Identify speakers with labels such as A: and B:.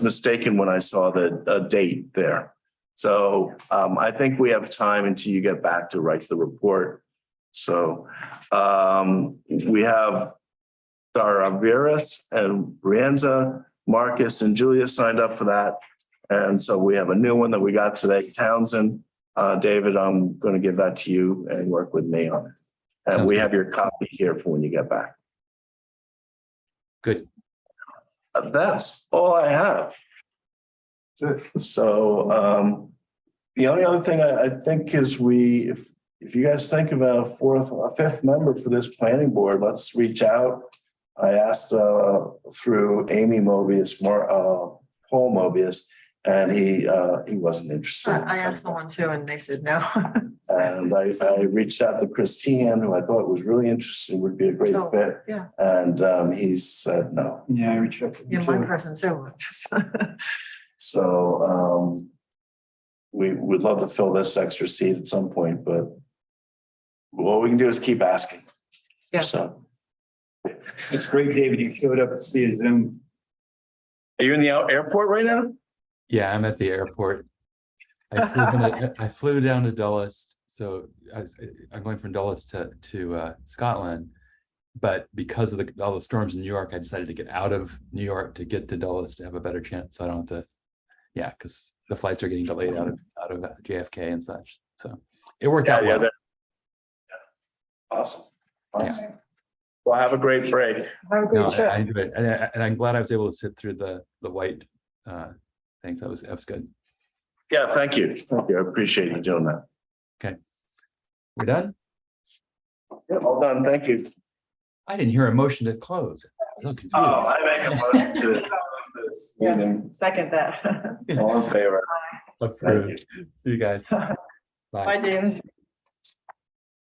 A: mistaken when I saw the, uh, date there. So, um, I think we have time until you get back to write the report. So, um, we have Dara Veras and Brianza, Marcus and Julia signed up for that. And so we have a new one that we got today, Townsend. Uh, David, I'm going to give that to you and work with me on it. And we have your copy here for when you get back.
B: Good.
A: Uh, That's all I have. So um, the only other thing I, I think is we, if, if you guys think about a fourth, a fifth member for this planning board, let's reach out. I asked uh, through Amy Mobius, more, uh, Paul Mobius, and he, uh, he wasn't interested.
C: I I asked someone too and they said no.
A: And I, I reached out to Christine, who I thought was really interesting, would be a great
C: Oh,
A: fit.
C: yeah.
A: And um, he said no.
D: Yeah, I reached out to
C: Yeah,
D: them
C: one
D: too.
C: person too.
A: So um, we would love to fill this extra seat at some point, but what we can do is keep asking.
C: Yes,
A: So
D: It's great, David, you showed up to see a Zoom.
A: are you in the out- airport right now?
B: Yeah, I'm at the airport. I flew, down- I flew down to Dulles, so I was, I'm going from Dulles to, to uh, Scotland. But because of the, all the storms in New York, I decided to get out of New York to get to Dulles to have a better chance, so I don't have to. Yeah, because the flights are getting delayed out of, out of uh, JFK and such, so it worked out well.
A: there. Awesome. Awesome. Well, have a great break.
C: have a
B: No,
C: great
B: I I
C: trip.
B: enjoyed it, and I, and I'm glad I was able to sit through the, the white, uh, things, that was, that was good.
A: Yeah, thank you. Thank you. I appreciate you doing that.
B: We're done?
A: Yeah, well done. Thank you.
B: I didn't hear a motion to close. I'm so confused.
A: Oh, I make a motion to close this meeting.
C: Second that.
A: All in favor? Thank you.
B: Approved. See you guys.
C: Bye, David.